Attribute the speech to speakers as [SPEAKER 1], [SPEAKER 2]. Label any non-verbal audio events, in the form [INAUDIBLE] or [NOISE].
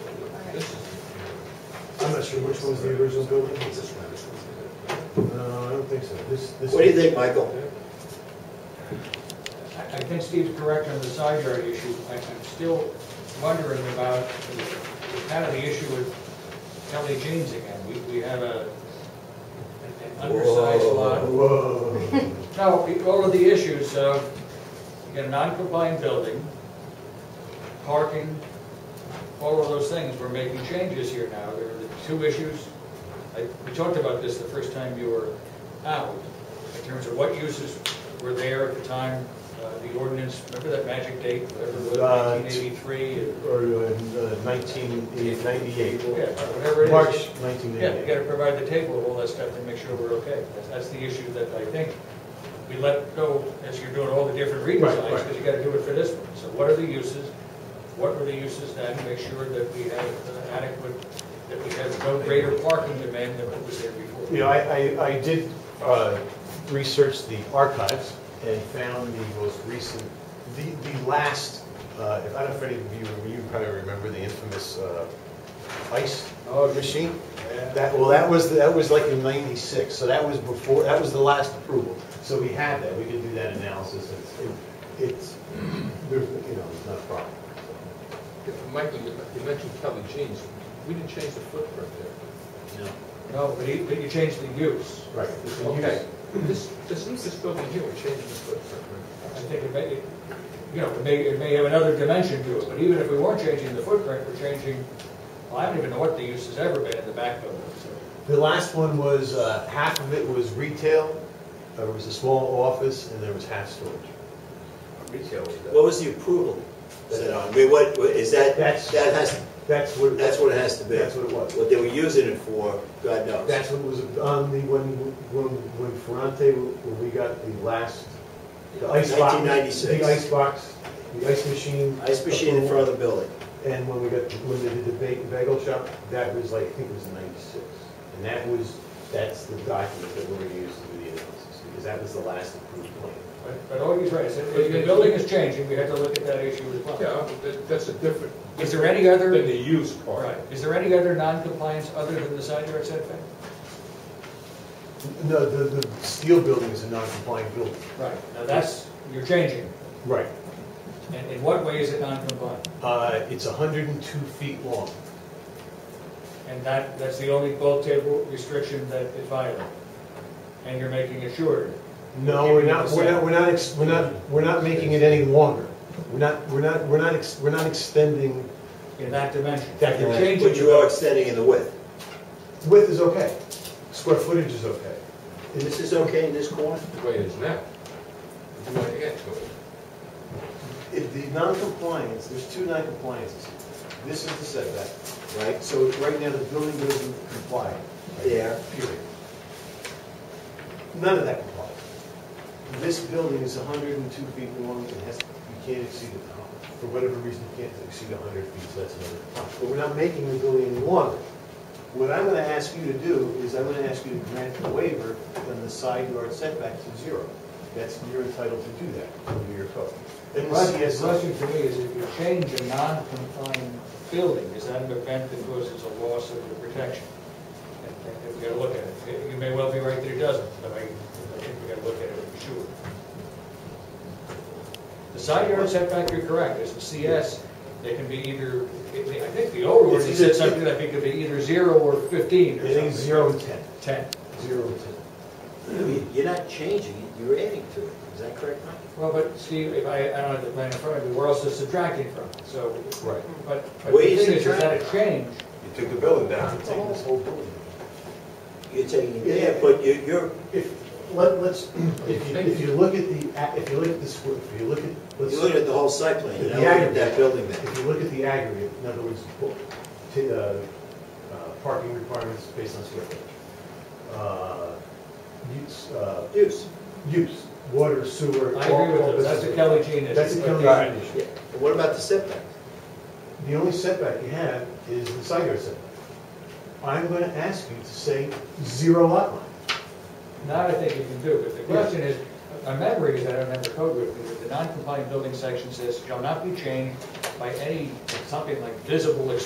[SPEAKER 1] not sure which one's the original building. No, I don't think so. This, this.
[SPEAKER 2] What do you think, Michael?
[SPEAKER 3] I I think Steve's correct on the side yard issue. I- I'm still wondering about, the- kind of the issue with Kelly Jeans again. We, we have a, an undersized
[SPEAKER 2] Whoa.
[SPEAKER 3] lot.
[SPEAKER 1] Whoa.
[SPEAKER 3] No, we- all of the issues of, you got a non-compliant building, parking, all of those things, we're making changes here now. There are the two issues. I- We talked about this the first time you were out, in terms of what uses were there at the time, uh, the ordinance, remember that magic date, whatever it was,
[SPEAKER 1] Uh,
[SPEAKER 3] 1983? and-
[SPEAKER 1] Or uh, nineteen ninety-eight.
[SPEAKER 3] Yeah, whatever it is.
[SPEAKER 1] March nineteen
[SPEAKER 3] Yeah, you gotta
[SPEAKER 1] ninety-eight.
[SPEAKER 3] provide the table of all that stuff to make sure we're okay. That's- That's the issue that I think we let go as you're doing all the different
[SPEAKER 1] Right,
[SPEAKER 3] redesigns,
[SPEAKER 1] right.
[SPEAKER 3] because you gotta do it for this one. So what are the uses? What were the uses then? Make sure that we have uh, adequate, that we have no greater parking demand than what was there
[SPEAKER 1] You
[SPEAKER 3] before.
[SPEAKER 1] know, I, I, I did uh, research the archives and found the most recent, the, the last, uh, if I don't know if any of you, you probably remember the infamous uh, ice
[SPEAKER 3] Oh,
[SPEAKER 1] machine?
[SPEAKER 3] yeah.
[SPEAKER 1] That, well, that was, that was like in 96, so that was before, that was the last approval. So we had that, we could do that analysis, it's, it- it's, [CLEARS THROAT] there's, you know, it's not a problem.
[SPEAKER 4] Yeah, Michael, you you mentioned Kelly Jeans. We didn't change the footprint there.
[SPEAKER 1] No.
[SPEAKER 3] No, but you, but you changed the use.
[SPEAKER 1] Right. it's a use.
[SPEAKER 4] Okay. This, this, this building here, we changed the footprint.
[SPEAKER 3] I
[SPEAKER 4] right?
[SPEAKER 3] think it may, it- you know, it may, it may have another dimension to it, but even if we weren't changing the footprint, we're changing, well, I don't even know what the use has ever been in the back building, so.
[SPEAKER 1] The last one was, uh, half of it was retail, there was a small office, and there was half storage.
[SPEAKER 4] Retail was that.
[SPEAKER 2] What was the approval? set on? I mean, what, what- is that, that
[SPEAKER 1] That's-
[SPEAKER 2] has,
[SPEAKER 1] That's what.
[SPEAKER 2] that's what it has to be.
[SPEAKER 1] That's what it was.
[SPEAKER 2] What they were using it for, God knows.
[SPEAKER 1] That's what was on the, when, when, when Ferrante, when we got the last, the ice box.
[SPEAKER 2] 1996.
[SPEAKER 1] The ice box, the ice machine.
[SPEAKER 2] Ice machine in
[SPEAKER 1] approval.
[SPEAKER 2] front of the building.
[SPEAKER 1] And when we got, when they did the ba- bagel shop, that was like, I think it was ninety-six. And that was, that's the document that we're gonna use to do the analysis, because that was the last approved plan.
[SPEAKER 3] But, but all he's right, is that if the building is changing, we have to look at that issue as well.
[SPEAKER 4] Yeah, that- that's a different,
[SPEAKER 3] Is there any
[SPEAKER 4] than the
[SPEAKER 3] other,
[SPEAKER 4] use
[SPEAKER 3] right,
[SPEAKER 4] part.
[SPEAKER 3] is there any other non-compliance other than the side yard setback?
[SPEAKER 1] No, the, the steel building is a non-compliant building.
[SPEAKER 3] Right, now that's, you're changing,
[SPEAKER 1] Right.
[SPEAKER 3] and in what way is it non-compliant?
[SPEAKER 1] Uh, it's hundred and two feet long.
[SPEAKER 3] And that, that's the only bulk table restriction that is violated, and you're making it shorter.
[SPEAKER 1] No, we're not, we're not, we're not, ex- we're not, we're not making it any longer. We're not, we're not, we're not, ex- we're not extending,
[SPEAKER 3] in that dimension.
[SPEAKER 1] That
[SPEAKER 3] You're
[SPEAKER 1] dimension.
[SPEAKER 3] changing
[SPEAKER 2] But you are extending in the width.
[SPEAKER 1] width is okay, square footage is okay.
[SPEAKER 2] This is okay in this corner?
[SPEAKER 4] The way it is now. You want to add to it.
[SPEAKER 1] If the non-compliance, there's two non-compliances. This is the setback,
[SPEAKER 2] Right.
[SPEAKER 1] so right now the building doesn't comply.
[SPEAKER 2] Yeah.
[SPEAKER 1] Period. None of that complies. This building is hundred and two feet long and has, you can't exceed it. For whatever reason, you can't exceed hundred feet, so that's another problem. But we're not making the building any longer. What I'm gonna ask you to do is I'm gonna ask you to grant a waiver on the side yard setback to zero. That's, you're entitled to do that under your code.
[SPEAKER 3] The
[SPEAKER 1] And the
[SPEAKER 3] question- the
[SPEAKER 1] CSO
[SPEAKER 3] question to me is, if you change a non-compliant building, is that an event that causes a loss of the protection? And- and we gotta look at it. You may well be right that it doesn't, but I, I think we gotta look at it for sure. The side yard setback, you're correct, as a CS, they can be either, I think the old one
[SPEAKER 1] It's
[SPEAKER 3] said
[SPEAKER 1] either-
[SPEAKER 3] something, I think it could be either zero or fifteen or
[SPEAKER 1] It
[SPEAKER 3] something.
[SPEAKER 1] is zero and ten.
[SPEAKER 3] Ten.
[SPEAKER 1] Zero and ten.
[SPEAKER 2] You're not changing it, you're adding to it. Is that correct, Mike?
[SPEAKER 3] Well, but Steve, if I, I don't have the plan in front of me, we're also subtracting from it, so,
[SPEAKER 1] Right.
[SPEAKER 3] but, but the
[SPEAKER 2] Where you
[SPEAKER 3] thing is, is that
[SPEAKER 2] subtract?
[SPEAKER 3] a change?
[SPEAKER 1] You took the building down. You're taking this whole building.
[SPEAKER 2] You're taking it
[SPEAKER 1] Yeah.
[SPEAKER 2] there, but you- you're,
[SPEAKER 1] If, let, let's, if you, if you look at the, a- if you look at the square, if you look at,
[SPEAKER 2] you're
[SPEAKER 1] let's,
[SPEAKER 2] looking at the whole site plan, you're not
[SPEAKER 1] Yeah.
[SPEAKER 2] looking at that building there.
[SPEAKER 1] if you look at the aggregate, in other words, bo- t- uh, uh, parking requirements based on square footage. Uh, Use, uh,
[SPEAKER 2] Use.
[SPEAKER 1] use, water, sewer.
[SPEAKER 3] I
[SPEAKER 1] all-
[SPEAKER 3] agree with
[SPEAKER 1] all
[SPEAKER 3] those, that's a
[SPEAKER 1] business.
[SPEAKER 3] Kelly Jean issue.
[SPEAKER 1] That's a
[SPEAKER 3] but-
[SPEAKER 1] Kelly Jean issue.
[SPEAKER 2] Yeah. But What about the setback?
[SPEAKER 1] The only setback you have is the side yard setback. I'm gonna ask you to say zero lot line.
[SPEAKER 3] That I think you can do, but the question is, my memory is, I don't have the code with me, but the non-compliant building section says, shall not be changed by any, something like visible